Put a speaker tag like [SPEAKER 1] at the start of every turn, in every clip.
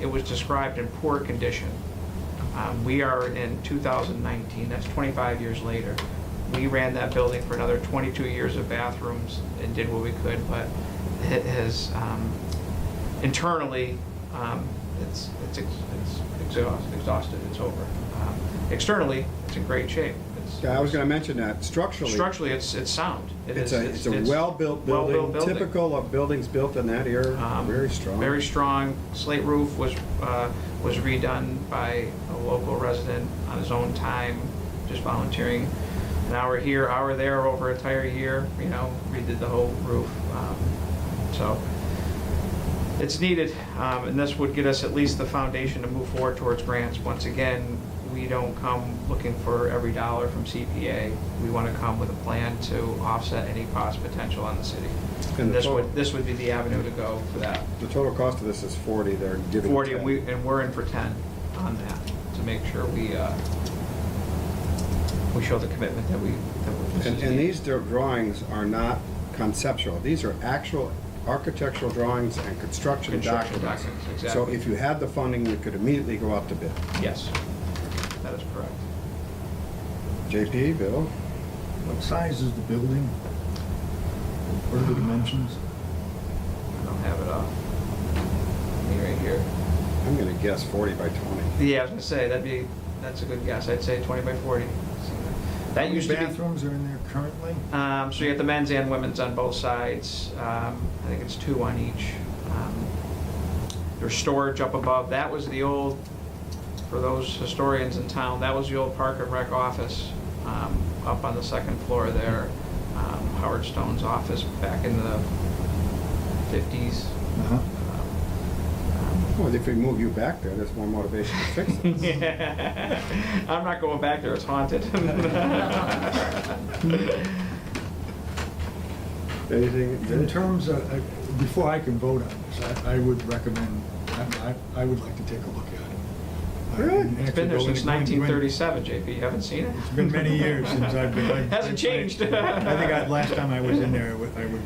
[SPEAKER 1] It was described in poor condition. Um, We are in 2019, that's 25 years later. We ran that building for another 22 years of bathrooms and did what we could, but it has, um, internally, um, it's, it's ex- it's exhaust- exhausted, it's over. Um, Externally, it's in great shape. It's-
[SPEAKER 2] Yeah, I was gonna mention that structurally.
[SPEAKER 1] Structurally, it's, it's sound. It
[SPEAKER 2] It's
[SPEAKER 1] is-
[SPEAKER 2] a, it's a well-built
[SPEAKER 1] well-built
[SPEAKER 2] building, typical of buildings built in that era,
[SPEAKER 1] Um,
[SPEAKER 2] very strong.
[SPEAKER 1] Very strong. Slate roof was, uh, was redone by a local resident on his own time, just volunteering. An hour here, hour there, over a entire year, you know, redid the whole roof. Um, So it's needed, um, and this would get us at least the foundation to move forward towards grants. Once again, we don't come looking for every dollar from CPA. We want to come with a plan to offset any cost potential on the city.
[SPEAKER 2] And the
[SPEAKER 1] This
[SPEAKER 2] total-
[SPEAKER 1] would, this would be the avenue to go for that.
[SPEAKER 2] The total cost of this is forty, they're giving
[SPEAKER 1] 40, and
[SPEAKER 2] 10.
[SPEAKER 1] we, and we're in for 10 on that, to make sure we, uh, we show the commitment that we, that we this
[SPEAKER 2] And,
[SPEAKER 1] is
[SPEAKER 2] and
[SPEAKER 1] needed.
[SPEAKER 2] these dir- drawings are not conceptual, these are actual architectural drawings and construction
[SPEAKER 1] Construction
[SPEAKER 2] documents.
[SPEAKER 1] documents,
[SPEAKER 2] So
[SPEAKER 1] exactly.
[SPEAKER 2] if you had the funding, you could immediately go out to bid.
[SPEAKER 1] Yes, that is correct.
[SPEAKER 2] JP, Bill?
[SPEAKER 3] What size is the building? What are the dimensions?
[SPEAKER 1] I don't have it off. Me right here.
[SPEAKER 2] I'm gonna guess forty by twenty.
[SPEAKER 1] Yeah, I was gonna say, that'd be, that's a good guess, I'd say 20 by 40. That used to
[SPEAKER 3] How many
[SPEAKER 1] be,
[SPEAKER 3] bathrooms are in there currently?
[SPEAKER 1] Um, so you got the men's and women's on both sides. Um, I think it's two on each. Um, There's storage up above. That was the old, for those historians in town, that was the old Park and Rec office um, up on the second floor there. Um, Howard Stone's office back in the 50s.
[SPEAKER 3] Uh-huh.
[SPEAKER 2] Well, if we move you back there, there's more motivation to fix it.
[SPEAKER 1] I'm not going back there, it's haunted.
[SPEAKER 2] Anything?
[SPEAKER 3] In terms of, uh, before I can vote on this, I, I would recommend, I, I I would like to take a look at it. Uh,
[SPEAKER 2] Really?
[SPEAKER 3] And
[SPEAKER 1] It's been there
[SPEAKER 3] actually go in-
[SPEAKER 1] since
[SPEAKER 3] go in- go
[SPEAKER 1] 1937,
[SPEAKER 3] in-
[SPEAKER 1] JP. You haven't seen it?
[SPEAKER 3] It's been many years since I've been. I-
[SPEAKER 1] Hasn't changed.
[SPEAKER 3] I I think I, last time I was in there, I wa- I was,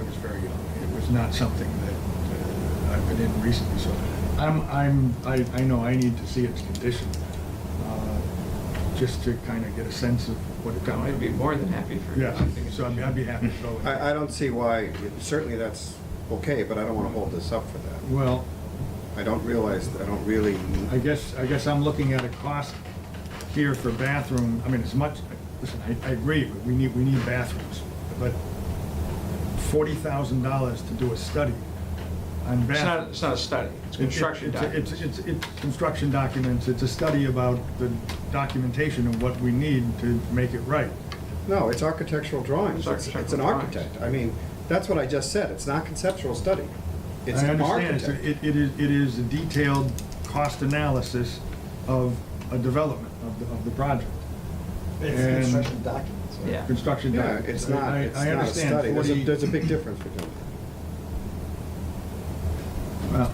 [SPEAKER 3] I was very young. It was not something that uh, I've been in recently, so I'm, I'm, I, I know I need to see its condition, uh, just to kind of get a sense of what it's.
[SPEAKER 1] I'd be more than happy for you.
[SPEAKER 3] Yeah, so I'd be- I'd be happy to go. with it.
[SPEAKER 2] I, I don't see why, certainly that's okay, but I don't wanna hold this up for that.
[SPEAKER 3] Well,
[SPEAKER 2] I don't realize, I don't really,
[SPEAKER 3] I guess, I guess I'm looking at a cost here for bathroom, I mean, as much, listen, I, I agree, but we need, we need bathrooms, but forty thousand dollars to do a study on
[SPEAKER 1] It's not,
[SPEAKER 3] bathrooms.
[SPEAKER 1] it's not a study, it's
[SPEAKER 3] It- it-
[SPEAKER 1] construction
[SPEAKER 3] it's a-
[SPEAKER 1] documents.
[SPEAKER 3] It's, it's, it's construction documents, it's a study about the documentation of what we need to make it right.
[SPEAKER 2] no, it's architectural drawings.
[SPEAKER 1] It's
[SPEAKER 2] It's, it's an
[SPEAKER 1] architectural drawings.
[SPEAKER 2] architect. I mean, that's what I just said. It's not conceptual study. It's
[SPEAKER 3] I
[SPEAKER 2] an
[SPEAKER 3] understand, it's,
[SPEAKER 2] architect.
[SPEAKER 3] a- it, it is, it is a detailed cost analysis of a development of the, of the project.
[SPEAKER 4] It's
[SPEAKER 3] And-
[SPEAKER 4] construction documents, right?
[SPEAKER 1] Yeah.
[SPEAKER 3] Construction
[SPEAKER 2] Yeah,
[SPEAKER 3] documents.
[SPEAKER 2] it's not,
[SPEAKER 3] I- I-
[SPEAKER 2] it's
[SPEAKER 3] I
[SPEAKER 2] not a
[SPEAKER 3] understand
[SPEAKER 2] study. There's a,
[SPEAKER 3] 40
[SPEAKER 2] there's a big difference between,
[SPEAKER 3] Well,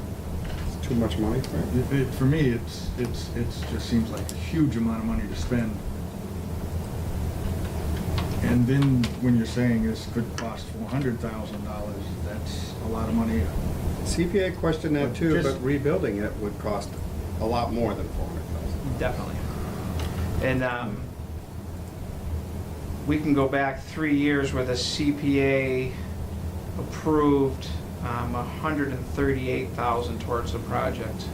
[SPEAKER 2] it's too much money, right?
[SPEAKER 3] it, it, for me, it's, it's, it's, just seems like a huge amount of money to spend. And then when you're saying this could cost four hundred thousand dollars, that's a lot of money.
[SPEAKER 2] CPA questioned that
[SPEAKER 3] But
[SPEAKER 2] too,
[SPEAKER 3] just-
[SPEAKER 2] but rebuilding it would cost a lot more than four hundred thousand.
[SPEAKER 1] Definitely. And um, we can go back three years with a CPA approved um, 138,000 towards the project.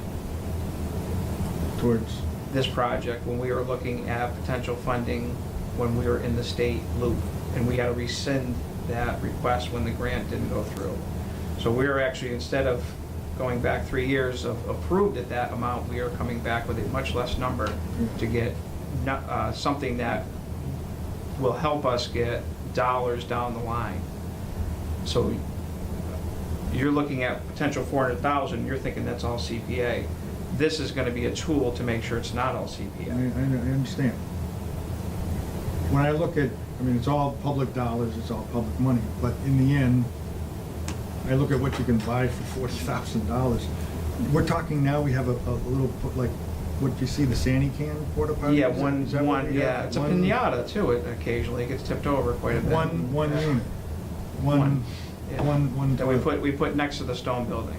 [SPEAKER 3] towards,
[SPEAKER 1] this project when we were looking at potential funding when we were in the state loop. And we had to rescind that request when the grant didn't go through. So we are actually, instead of going back three years of approved at that amount, we are coming back with a much less number to get no- uh, something that will help us get dollars down the line. So you're looking at potential four hundred thousand, you're thinking that's all CPA. This is gonna be a tool to make sure it's not all
[SPEAKER 3] I, I I
[SPEAKER 1] CPA.
[SPEAKER 3] understand. When I look at, I mean, it's all public dollars, it's all public money, but in the end, I look at what you can buy for forty thousand dollars. We're talking now, we have a, a little, po- like, what, you see the sandy can porta potty?
[SPEAKER 1] Yeah,
[SPEAKER 3] Is that-
[SPEAKER 1] one,
[SPEAKER 3] is that what
[SPEAKER 1] one,
[SPEAKER 3] we got?
[SPEAKER 1] yeah, it's a
[SPEAKER 3] One-
[SPEAKER 1] pinata too, it occasionally gets tipped over quite a bit.
[SPEAKER 3] One, one unit.
[SPEAKER 1] One,
[SPEAKER 3] One,
[SPEAKER 1] yeah.
[SPEAKER 3] one, one.
[SPEAKER 1] That we
[SPEAKER 3] toilet.
[SPEAKER 1] put, we put next to the stone building.